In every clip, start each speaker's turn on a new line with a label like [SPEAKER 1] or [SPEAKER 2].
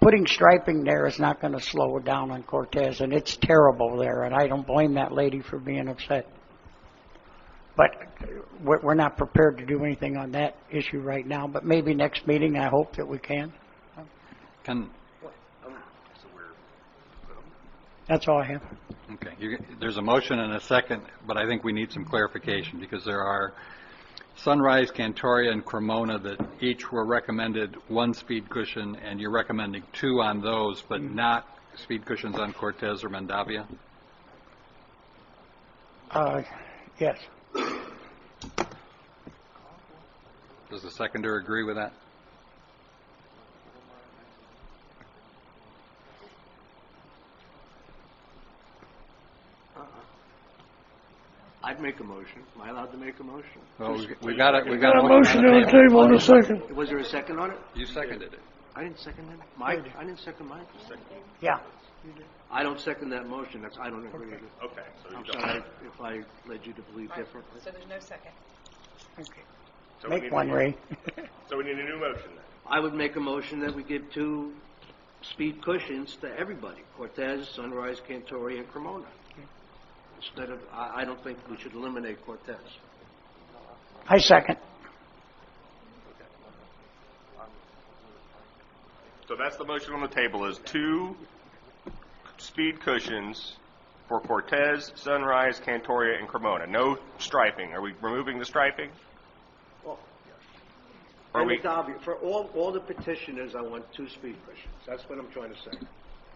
[SPEAKER 1] putting striping there is not going to slow it down on Cortez, and it's terrible there, and I don't blame that lady for being upset. But we're, we're not prepared to do anything on that issue right now, but maybe next meeting, I hope that we can.
[SPEAKER 2] Can,
[SPEAKER 1] That's all I have.
[SPEAKER 2] okay, you- there's a motion and a second, but I think we need some clarification, because there are Sunrise, Cantoria, and Cremona that each were recommended one speed cushion, and you're recommending two on those, but
[SPEAKER 3] Mm-hmm.
[SPEAKER 2] not speed cushions on Cortez or Mandavia?
[SPEAKER 1] Uh, yes.
[SPEAKER 2] Does the seconder agree with that?
[SPEAKER 4] I'd make a motion. Am I allowed to make a motion?
[SPEAKER 2] Well, Oh, we- we've got it, we've got
[SPEAKER 3] Got
[SPEAKER 2] a
[SPEAKER 3] a motion
[SPEAKER 2] on
[SPEAKER 3] on the table in a second.
[SPEAKER 4] Was there a second on it?
[SPEAKER 2] You seconded it.
[SPEAKER 4] I didn't second it. Mike, I didn't second mine.
[SPEAKER 1] Yeah.
[SPEAKER 4] I don't second that motion. That's, I don't agree with it.
[SPEAKER 5] Okay, so you
[SPEAKER 4] I'm
[SPEAKER 5] don't,
[SPEAKER 4] sorry if I led you to believe differently.
[SPEAKER 6] So there's no second.
[SPEAKER 5] so we need
[SPEAKER 1] Make
[SPEAKER 5] a
[SPEAKER 1] one,
[SPEAKER 5] new-
[SPEAKER 1] Ray.
[SPEAKER 5] So we need a new motion then.
[SPEAKER 4] I would make a motion that we give two speed cushions to everybody, Cortez, Sunrise, Cantoria, and Cremona. Instead of, I, I don't think we should eliminate Cortez.
[SPEAKER 1] I second.
[SPEAKER 5] So that's the motion on the table, is two speed cushions for Cortez, Sunrise, Cantoria, and Cremona. No striping. Are we removing the striping? Are
[SPEAKER 4] And
[SPEAKER 5] we-
[SPEAKER 4] it's obvious, for all, all the petitioners, I want two speed cushions. That's what I'm trying to say.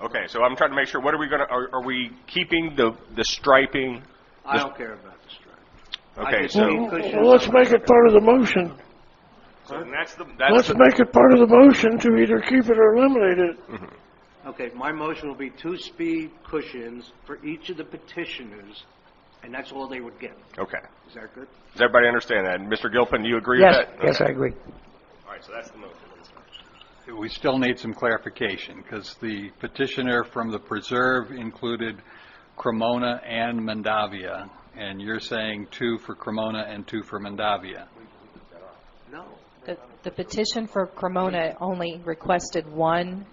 [SPEAKER 5] Okay, so I'm trying to make sure, what are we gonna, are, are we keeping the, the striping?
[SPEAKER 4] I don't care about the strike.
[SPEAKER 5] Okay,
[SPEAKER 4] just
[SPEAKER 5] so,
[SPEAKER 4] need-
[SPEAKER 3] Well, let's make it part of the motion.
[SPEAKER 5] so then that's the, that's
[SPEAKER 3] Let's
[SPEAKER 5] the,
[SPEAKER 3] make it part of the motion to either keep it or eliminate it.
[SPEAKER 4] Okay, my motion will be two speed cushions for each of the petitioners, and that's all they would get.
[SPEAKER 5] okay.
[SPEAKER 4] Is that good?
[SPEAKER 5] Does everybody understand that? Mr. Gilpin, you agree with
[SPEAKER 1] Yes,
[SPEAKER 5] that?
[SPEAKER 1] yes, I
[SPEAKER 5] Okay.
[SPEAKER 1] agree.
[SPEAKER 5] All right, so that's the motion.
[SPEAKER 2] We still need some clarification, because the petitioner from the preserve included Cremona and Mandavia, and you're saying two for Cremona and two for Mandavia.
[SPEAKER 4] No.
[SPEAKER 7] The the petition for Cremona only requested one,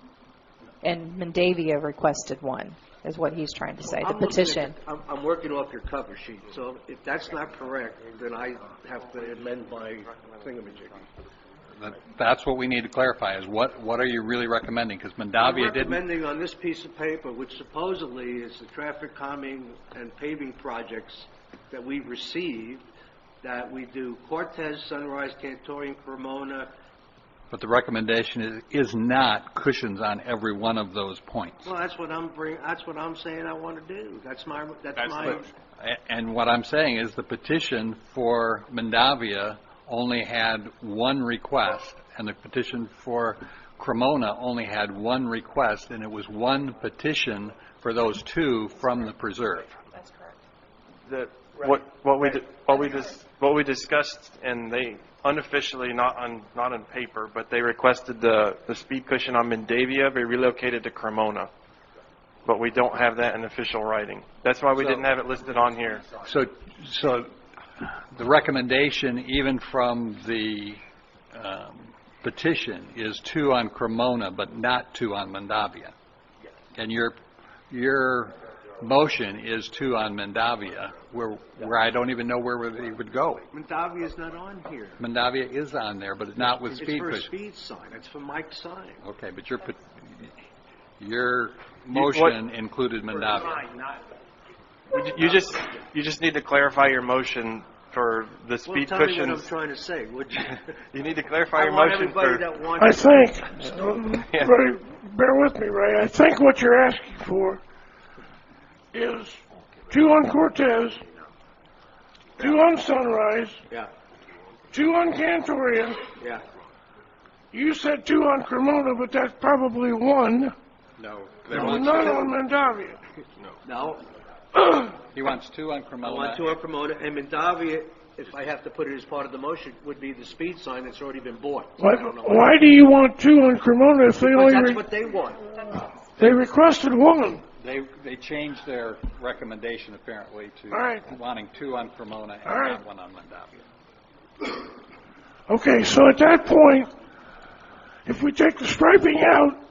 [SPEAKER 7] and Mendavia requested one, is what he's trying to say, the
[SPEAKER 4] I'm looking at-
[SPEAKER 7] petition.
[SPEAKER 4] I'm, I'm working off your cover sheet, so if that's not correct, then I have to amend my thingamajig.
[SPEAKER 2] That- That's what we need to clarify, is what, what are you really recommending? Because Mandavia
[SPEAKER 4] I'm
[SPEAKER 2] didn't,
[SPEAKER 4] recommending on this piece of paper, which supposedly is the traffic calming and paving projects that we received, that we do Cortez, Sunrise, Cantorian, Cremona,
[SPEAKER 2] but the recommendation is, is not cushions on every one of those points.
[SPEAKER 4] Well, that's what I'm bring, that's what I'm saying I want to do. That's my, that's
[SPEAKER 5] That's
[SPEAKER 4] my,
[SPEAKER 5] what-
[SPEAKER 2] A- And what I'm saying is the petition for Mandavia only had one request, and the petition for Cremona only had one request, and it was one petition for those two from the preserve.
[SPEAKER 6] That's correct.
[SPEAKER 8] that what, what we, di- what we, dis- what we discussed, and they unofficially, not on, not on paper, but they requested the, the speed cushion on Mendavia be relocated to Cremona. But we don't have that in official writing. That's why we
[SPEAKER 2] So-
[SPEAKER 8] didn't have it listed on here.
[SPEAKER 2] So, so the recommendation, even from the um, petition, is two on Cremona, but not two on Mandavia. And your, your motion is two on Mandavia, where, where I don't even know where they would go.
[SPEAKER 4] Mondavia's not on here.
[SPEAKER 2] Mandavia is on there, but not with
[SPEAKER 4] It's
[SPEAKER 2] speed
[SPEAKER 4] for a
[SPEAKER 2] cushion.
[SPEAKER 4] speed sign. It's for Mike's sign.
[SPEAKER 2] Okay, but your, pet- your motion included Mandavia.
[SPEAKER 8] You ju- You just, you just need to clarify your motion for the
[SPEAKER 4] Well,
[SPEAKER 8] speed
[SPEAKER 4] tell me what I'm
[SPEAKER 8] cushions.
[SPEAKER 4] trying to say, would you?
[SPEAKER 8] You need to clarify
[SPEAKER 4] I
[SPEAKER 8] your
[SPEAKER 4] want
[SPEAKER 8] motion
[SPEAKER 4] everybody
[SPEAKER 8] for,
[SPEAKER 4] that wants.
[SPEAKER 3] I think, Ray, bear with me, Ray, I think what you're asking for is two on Cortez, two on Sunrise,
[SPEAKER 4] Yeah,
[SPEAKER 3] two on Cantoria.
[SPEAKER 4] yeah,
[SPEAKER 3] You said two on Cremona, but that's probably one,
[SPEAKER 2] No.
[SPEAKER 3] none on Mandavia.
[SPEAKER 4] no,
[SPEAKER 2] He wants two on
[SPEAKER 4] I
[SPEAKER 2] Cremona.
[SPEAKER 4] want to promote it, and Mondavia, if I have to put it as part of the motion, would be the speed sign that's already been bought.
[SPEAKER 3] Why, why do you want two on Cremona if they
[SPEAKER 4] But
[SPEAKER 3] only,
[SPEAKER 4] that's
[SPEAKER 3] re-
[SPEAKER 4] what they want.
[SPEAKER 3] they requested one?
[SPEAKER 2] They, they changed their recommendation apparently
[SPEAKER 3] All
[SPEAKER 2] to
[SPEAKER 3] right.
[SPEAKER 2] wanting two on Cremona
[SPEAKER 3] All
[SPEAKER 2] and
[SPEAKER 3] right.
[SPEAKER 2] not one on Mandavia.
[SPEAKER 3] Okay, so at that point, if we take the striping out,